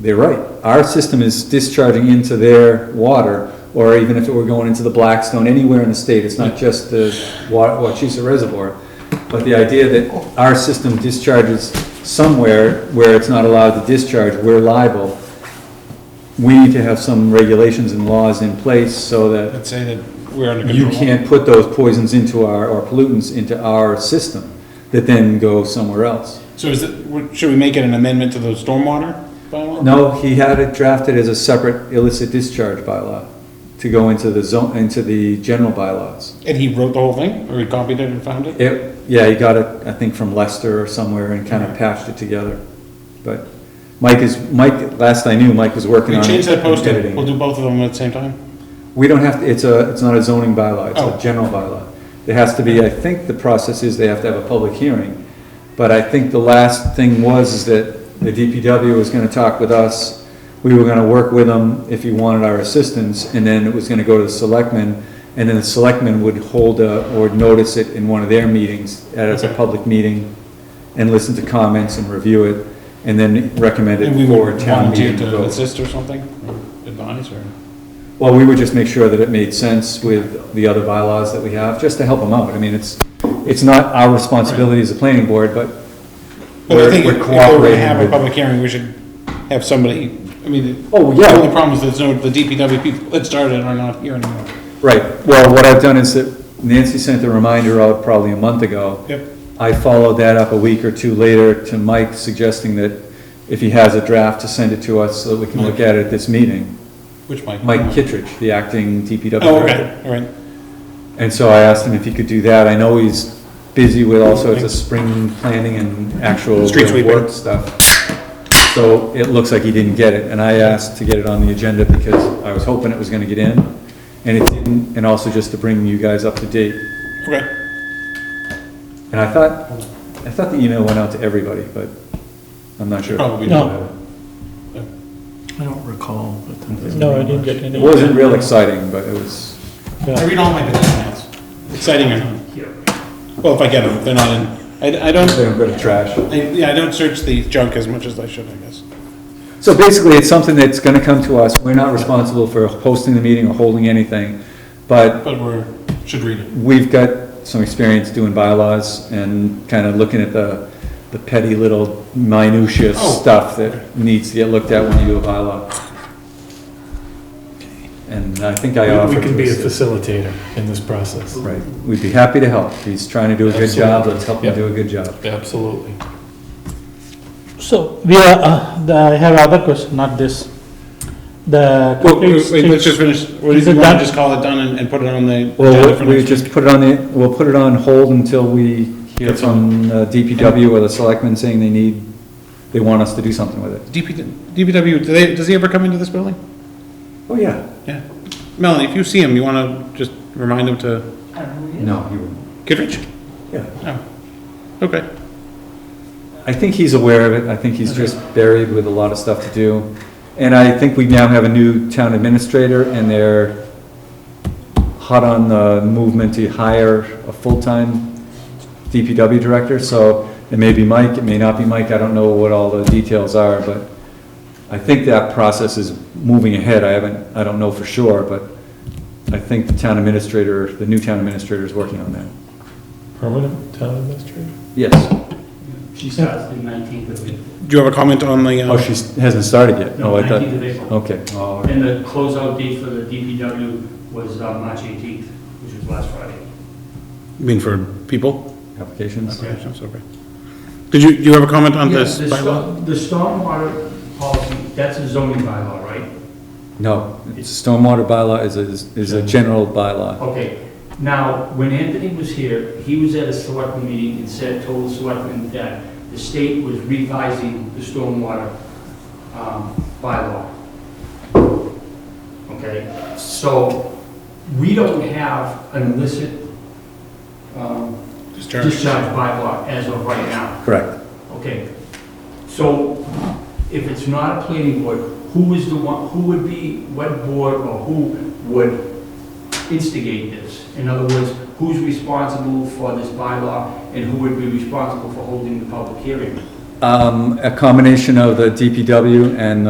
they're right. Our system is discharging into their water, or even if it were going into the Blackstone, anywhere in the state, it's not just the Wa- Wachusett Reservoir. But the idea that our system discharges somewhere where it's not allowed to discharge, we're liable. We need to have some regulations and laws in place so that Let's say that we're under you control. can't put those poisons into our, or pollutants into our system that then go somewhere else. So is it, would- should we make it an amendment to the stormwater bylaw? No, he had it drafted as a separate illicit discharge bylaw to go into the zone, into the general bylaws. And he wrote the whole thing, or he copied it and found it? It, yeah, he got it, I think, from Leicester or somewhere and kind of patched it together. But Mike is, Mike, last I knew, Mike was working We on it. change that and posting, editing we'll it. do both of them at the same time? We don't have, to. it's a, it's not a zoning bylaw, it's Oh. a general bylaw. It has to be, I think the process is they have to have a public hearing, but I think the last thing was is that the DPW was gonna talk with us, we were gonna work with them if he wanted our assistance, and then it was gonna go to the selectmen, and then the selectmen would hold a, or notice it in one of their meetings, as a Okay. public meeting, and listen to comments and review it, and then recommend And it we for would a town volunteer meeting to vote. assist or something, or advise, or? Well, we would just make sure that it made sense with the other bylaws that we have, just to help them out. I mean, it's, it's not our responsibility as a planning board, but But I we're we're think if if we we're gonna cooperating have a with. public hearing, we should have somebody, I mean, the Oh, the only yeah, problem is there's no, the DPW people that started are not here anymore. right. Well, what I've done is that Nancy sent a reminder out probably a month ago. Yep. I followed that up a week or two later to Mike suggesting that if he has a draft, to send it to us so that we can look at it at this meeting. Which Mike? Mike Kittredge, the acting DPW Oh, director. okay, all right. And so I asked him if he could do that. I know he's busy with all sorts of spring planning and actual Street real work stuff. So it looks like he didn't get it, and I asked to get it on the agenda because I was hoping it was gonna get in, and it didn't, and also just to bring you guys up to date. Okay, And I thought, I thought the email went out to everybody, but I'm not sure. probably. No. not. I don't recall, but. that doesn't No, I mean didn't much. get any. It wasn't real exciting, but it was, I Yeah. read all my documents, exciting or not. Well, if I get them, if they're not in, I, I don't, a bit of trash. I, yeah, I don't search the junk as much as I should, I guess. So basically, it's something that's gonna come to us. We're not responsible for hosting the meeting or holding anything, but But we're, should read it. We've got some experience doing bylaws and kind of looking at the, the petty little minutia Oh. stuff that needs to get looked at when you do a bylaw. And I think I We offered. we can to be a assist. facilitator in this process. Right, we'd be happy to help. He's trying to do a good job, Absolutely. let's help him do a good job. Absolutely. So we are, uh, the- I have other question, not this. The Well, complete wait, wait, let's just streets, finish, what do Is you it want done? to just call it done and, and put it on the agenda Well, for we next just week? put it on the, we'll put it on hold until we hear Get from uh, DPW or the selectmen saying they need, they want us to do something with it. DP, DPW, do they, does he ever come into this building? Oh, yeah. Yeah. Melanie, if you see him, you want to just remind him to, No, you wouldn't. Kittredge? Yeah. Oh, okay. I think he's aware of it, I think he's just buried with a lot of stuff to do. And I think we now have a new town administrator, and they're hot on the movement to hire a full-time DPW director, so it may be Mike, it may not be Mike, I don't know what all the details are, but I think that process is moving ahead, I haven't, I don't know for sure, but I think the town administrator, the new town administrator is working on that. Permanent town administrator? Yes. She starts the nineteenth of April. Do you have a comment on the, Oh, uh, she hasn't started yet? Oh, I thought- Nineteenth of April. Okay. Oh, And the closeout date for the DPW was uh, March eighteenth, which was last Friday. you mean for people? applications? Okay, that's okay. Did you, do you have a comment on Yeah, this the bylaw? sto- The stormwater policy, that's a zoning bylaw, right? No, it's- stormwater bylaw is, a- is a general bylaw. Okay, now, when Anthony was here, he was at a selectmen meeting and said, told the selectmen that the state was revising the stormwater um, bylaw. Okay, so we don't have an illicit um, Discharge. discharge bylaw as of right now. Correct. Okay, so if it's not a planning board, who is the one, who would be, what board or who would instigate this? In other words, who's responsible for this bylaw and who would be responsible for holding the public hearing? Um, a combination of the DPW and